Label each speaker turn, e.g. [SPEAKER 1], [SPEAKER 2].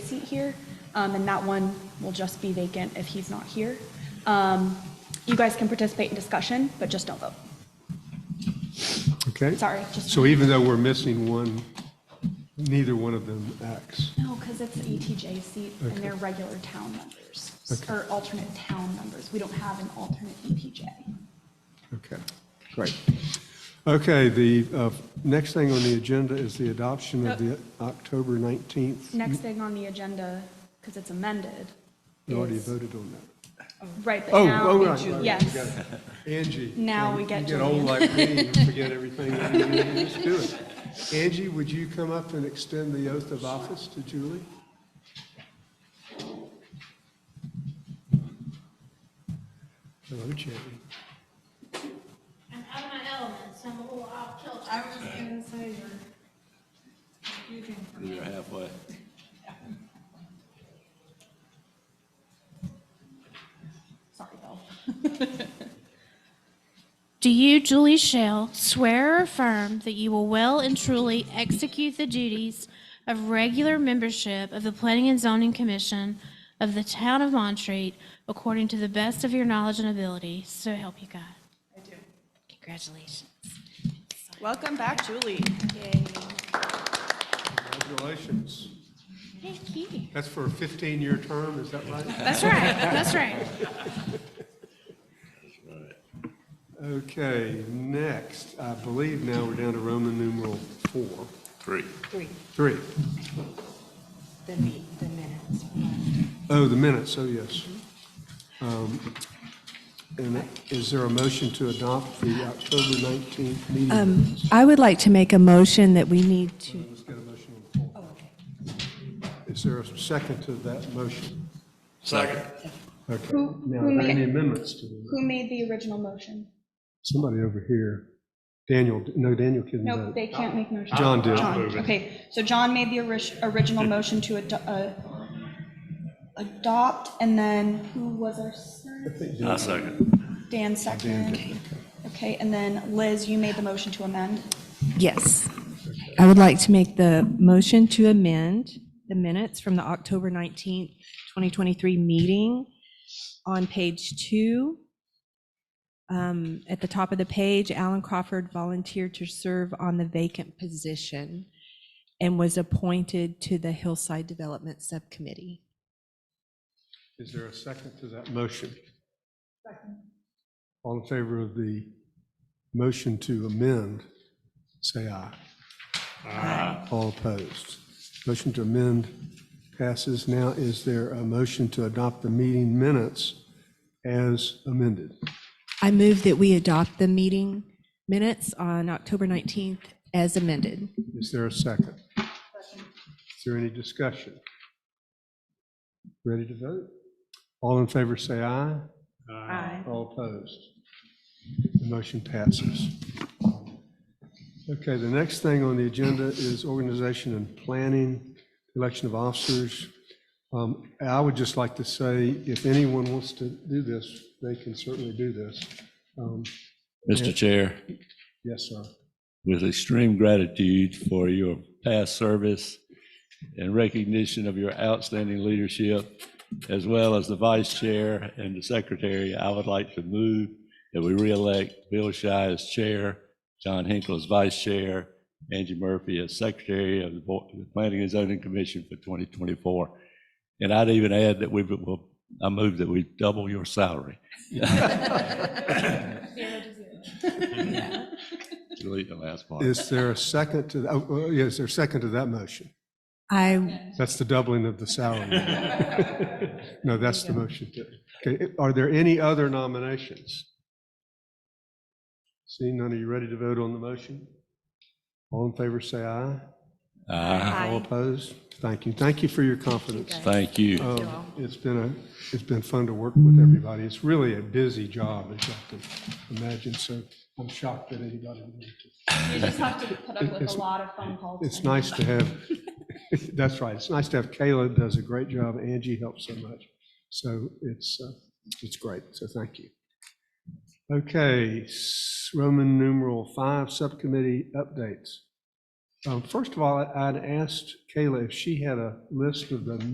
[SPEAKER 1] seat here, um, and that one will just be vacant if he's not here. Um, You guys can participate in discussion, but just don't vote.
[SPEAKER 2] Okay?
[SPEAKER 1] Sorry, just-
[SPEAKER 2] So even though we're missing one, neither one of them acts.
[SPEAKER 1] No, because it's the ETJ seat, and
[SPEAKER 2] Okay.
[SPEAKER 1] they're regular town members,
[SPEAKER 2] Okay.
[SPEAKER 1] or alternate town members. We don't have an alternate E ETJ.
[SPEAKER 2] Okay, great. Okay, the uh, next thing on the agenda is the adoption of the October 19th.
[SPEAKER 1] Next thing on the agenda, because it's amended,
[SPEAKER 2] You already
[SPEAKER 1] is,
[SPEAKER 2] voted on that.
[SPEAKER 1] right, but
[SPEAKER 2] Oh,
[SPEAKER 1] now.
[SPEAKER 2] oh, right, right,
[SPEAKER 1] Yes.
[SPEAKER 2] Angie.
[SPEAKER 1] Now we
[SPEAKER 2] you
[SPEAKER 1] get
[SPEAKER 2] get
[SPEAKER 1] to-
[SPEAKER 2] old like me, you forget everything. that you knew, you Just do it. Angie, would you come up and extend the oath of office to Julie? Hello, Julie.
[SPEAKER 3] I'm out of my element, so I'm a little off kilter. I was gonna say you're confusing for
[SPEAKER 4] You're halfway.
[SPEAKER 1] Sorry, Bill.
[SPEAKER 3] Do you, Julie Shell, swear or affirm that you will well and truly execute the duties of regular membership of the Planning and Zoning Commission of the Town of Montreat according to the best of your knowledge and ability, so help you God? I do. Congratulations.
[SPEAKER 5] Welcome back, Julie.
[SPEAKER 2] Congratulations.
[SPEAKER 3] Thank you.
[SPEAKER 2] That's for a 15-year term, is that right?
[SPEAKER 3] That's right, that's right.
[SPEAKER 2] Okay, next, I believe now we're down to Roman numeral four,
[SPEAKER 4] Three.
[SPEAKER 6] Three,
[SPEAKER 2] three.
[SPEAKER 6] the me- the minutes.
[SPEAKER 2] Oh, the minutes, oh, yes. Um, And is there a motion to adopt the October 19th meeting
[SPEAKER 1] Um,
[SPEAKER 2] minutes?
[SPEAKER 7] I would like to make a motion that we need to,
[SPEAKER 2] Let's get a motion on the floor.
[SPEAKER 1] oh,
[SPEAKER 2] Is there a second to that motion?
[SPEAKER 4] Second.
[SPEAKER 2] Okay,
[SPEAKER 1] Who-
[SPEAKER 2] now,
[SPEAKER 1] who
[SPEAKER 2] are there any
[SPEAKER 1] made-
[SPEAKER 2] amendments to the,
[SPEAKER 1] Who made the original motion?
[SPEAKER 2] somebody over here, Daniel, no, Daniel couldn't
[SPEAKER 1] Nope,
[SPEAKER 2] vote.
[SPEAKER 1] they can't make motions.
[SPEAKER 2] John did.
[SPEAKER 1] John, okay. So John made the orig- original motion to ado- uh, adopt, and then who was our second?
[SPEAKER 4] I second.
[SPEAKER 1] Dan second. Okay, and then Liz, you made the motion to amend.
[SPEAKER 7] yes. I would like to make the motion to amend the minutes from the October 19th, 2023 meeting on page two. Um, At the top of the page, Alan Crawford volunteered to serve on the vacant position and was appointed to the Hillside Development Subcommittee.
[SPEAKER 2] Is there a second to that motion? All in favor of the motion to amend, say aye. Aye. All opposed. Motion to amend passes. Now, is there a motion to adopt the meeting minutes as amended?
[SPEAKER 7] I move that we adopt the meeting minutes on October 19th as amended.
[SPEAKER 2] Is there a second? Is there any discussion? Ready to vote? All in favor, say aye. Aye. All opposed? The motion passes. Okay, the next thing on the agenda is organization and planning, election of officers. Um, I would just like to say, if anyone wants to do this, they can certainly do this. Um,
[SPEAKER 4] Mr. Chair,
[SPEAKER 2] Yes, sir.
[SPEAKER 4] with extreme gratitude for your past service and recognition of your outstanding leadership, as well as the vice chair and the secretary, I would like to move that we reelect Bill Shy as chair, John Hinkle as vice chair, Angie Murphy as secretary of the Bo- the Planning and Zoning Commission for 2024. And I'd even add that we will, I move that we double your salary. Delete the last part.
[SPEAKER 2] Is there a second to, oh, well, yeah, is there a second to that motion?
[SPEAKER 7] I,
[SPEAKER 2] That's the doubling of the salary. No, that's the motion. Okay, are there any other nominations? Seeing none, are you ready to vote on the motion? All in favor, say aye.
[SPEAKER 4] Ah,
[SPEAKER 2] All opposed? Thank you. Thank you for your confidence.
[SPEAKER 4] Thank you.
[SPEAKER 2] Um, It's been a, it's been fun to work with everybody. It's really a busy job, as you can imagine, so I'm shocked that anybody would. do it.
[SPEAKER 1] You just have to put up with
[SPEAKER 2] It's-
[SPEAKER 1] a lot of phone calls.
[SPEAKER 2] It's
[SPEAKER 1] and-
[SPEAKER 2] nice to have, that's right, it's nice to have Caleb, does a great job, Angie helps so much. So it's, uh, it's great, so thank you. Okay, s- Roman numeral five, subcommittee updates. Um, First of all, I'd asked Kayla if she had a list of the